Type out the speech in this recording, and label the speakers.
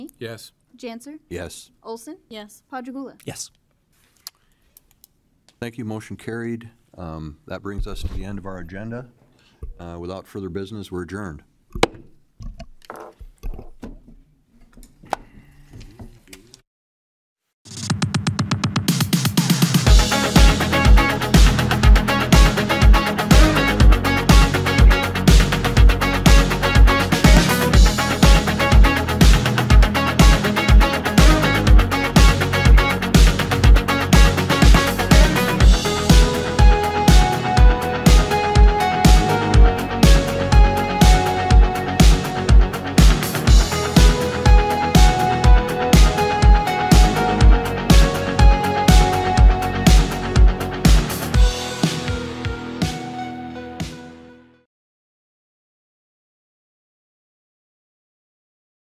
Speaker 1: Yes.
Speaker 2: Janser,
Speaker 3: Yes.
Speaker 2: Olson,
Speaker 4: Yes.
Speaker 2: Padragula.
Speaker 5: Yes.
Speaker 3: Thank you, motion carried. Um, That brings us to the end of our agenda. Uh, Without further business, we're adjourned.